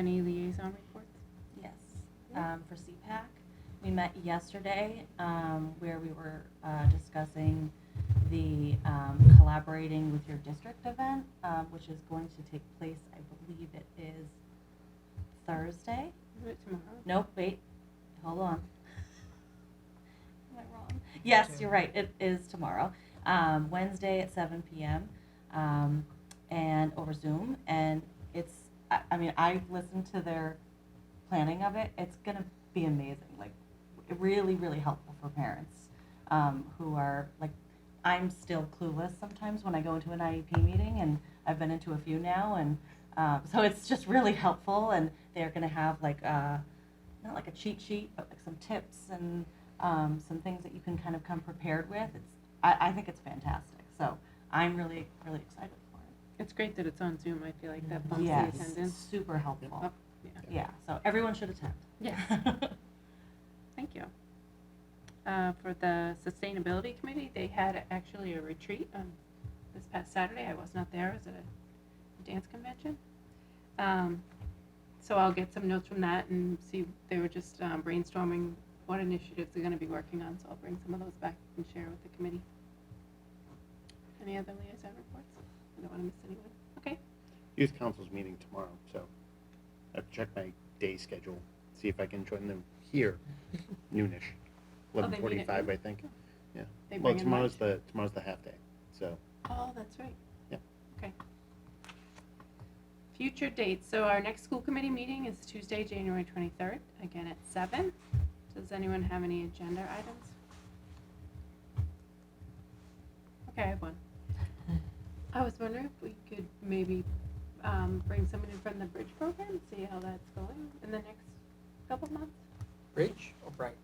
Any liaison reports? Yes, um, for CPAC, we met yesterday, um, where we were, uh, discussing the, um, collaborating with your district event, um, which is going to take place, I believe it is Thursday. Is it tomorrow? Nope, wait, hold on. Am I wrong? Yes, you're right, it is tomorrow, um, Wednesday at seven PM, um, and over Zoom, and it's, I, I mean, I've listened to their planning of it, it's gonna be amazing, like, really, really helpful for parents, um, who are, like, I'm still clueless sometimes when I go into an IEP meeting, and I've been into a few now, and, um, so it's just really helpful, and they're gonna have like, uh, not like a cheat sheet, but like some tips and, um, some things that you can kind of come prepared with, it's, I, I think it's fantastic, so I'm really, really excited for it. It's great that it's on Zoom. I feel like that bumps the Yes, attendance. super helpful. up. Yeah. Yeah, so everyone should attend. Yes. Thank you. Uh, For the Sustainability Committee, they had actually a retreat on this past Saturday. I was not there. It was at a dance convention. Um, So I'll get some notes from that and see, they were just um, brainstorming what initiatives they're going to be working on, so I'll bring some of those back and share with the committee. Any other liaison reports? I don't want to miss anyone. Okay. Youth Council's meeting tomorrow, so I have to check my day schedule, see if I can join them here noonish, Oh, they meet eleven at forty-five, noon? I think. Yeah. They Well, bring in lunch? tomorrow's the, tomorrow's the half day, so Oh, that's right. Yeah. Okay. Future dates, so our next school committee meeting is Tuesday, January 23rd, again at seven. Does anyone have any agenda items? Okay, I have one. I was wondering if we could maybe um, bring someone in from the bridge program, see how that's going in the next couple months? Bridge Oh, or bright?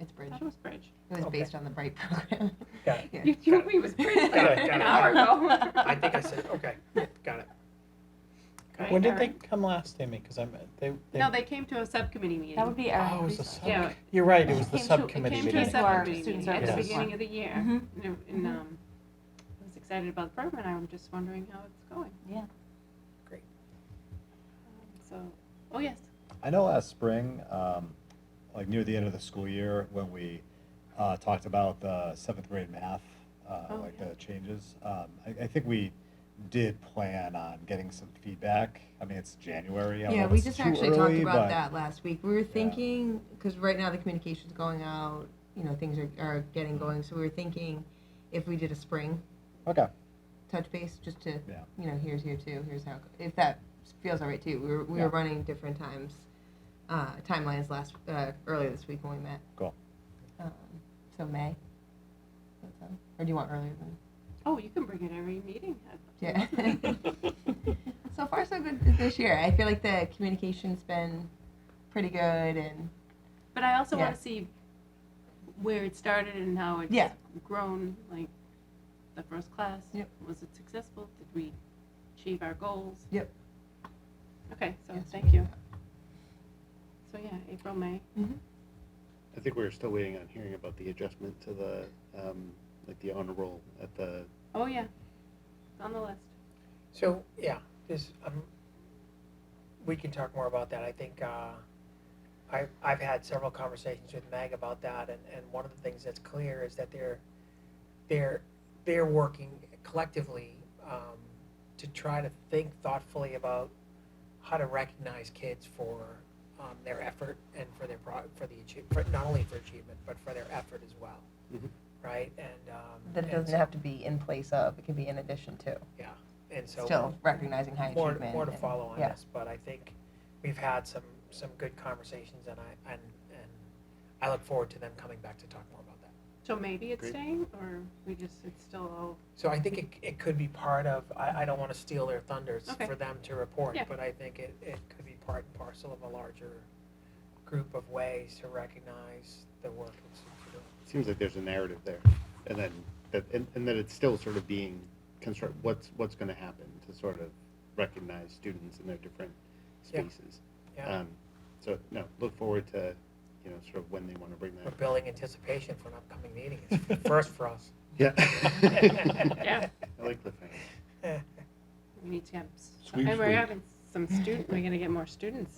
It's Bridge. That was bridge. It was Okay. based on the Bright program. Got it. Yeah. You told me it was bridge Got like it, got an it. hour ago. I think I said, okay, got it. Okay, When all did they right. come last, Amy? Because I'm, they, they. No, they came to a subcommittee meeting. That would be our. Oh, it was the preschool. sub, Yeah. you're right, it was It the came to- it subcommittee Came meeting. to a Meeting. Our subcommittee student meeting at the services beginning one. of the year. Mm-hmm. Mhm. And, and, um, I was excited about the program, and I'm just wondering how it's going. Yeah. Great. Um, So, oh, yes, I know last spring, um, like near the end of the school year, when we uh, talked about the seventh grade math, uh, Oh, like yeah. the changes, um, I, I think we did plan on getting some feedback. I mean, it's January. I don't know Yeah, if we it's just too actually early, talked about but- that last week. We were thinking, because right now the communication's going out, you know, things are, are getting going, so we were thinking if we did a spring Okay. touch base, just to, Yeah. you know, here's here too, here's how, if that feels all right too. We were, we Yeah. were running different times, uh, timelines last, uh, earlier this week when we met. Cool. Um, So May. Does that sound- Or do you want earlier than? oh, you can bring it every meeting. Yeah. so far, so good this year. I feel like the communication's been pretty good, and But I also Yeah. wanna see where it started and how it's Yeah. grown, like, the first class. Yep. Was it successful? Did we achieve our goals? Yep. Okay, so, Yes, thank you. So, yeah, April, May. I think we're still waiting on hearing about the adjustment to the, um, like the honor roll at the, Oh, yeah, on the list. So, yeah, this, um, we can talk more about that. I think, uh, I, I've had several conversations with Meg about that, and, and one of the things that's clear is that they're, they're, they're working collectively, um, to try to think thoughtfully about how to recognize kids for, um, their effort and for their pro, for the achieve, for, not only for achievement, but for their effort as well. Mhm. Right, and, um. that it and doesn't so- have to be in place of; it can be in addition to. And so. Still recognizing high More, achievement. more to and- follow on yeah. this, but I think we've had some, some good conversations and I, and, and I look forward to them coming back to talk more about that. So maybe it's Great. staying, or we just, it's still all, So I think it, it could be part of, I, I don't want to steal their thunders Okay. for them to report, Yeah. but I think it, it could be part and parcel of a larger group of ways to recognize the work that's doing. it seems like there's a narrative there. And then, that, and, and that it's still sort of being construct, what's, what's gonna happen to sort of recognize students in their different Yeah. spaces. Yeah, Um, So, no, look forward to, you know, sort of when they wanna bring we're that. building anticipation for an upcoming meeting. It's a first for us. Yeah. yeah, I like cliffhangers. we need to have, s- Sweet and we're sweet. having some student, we're gonna get more students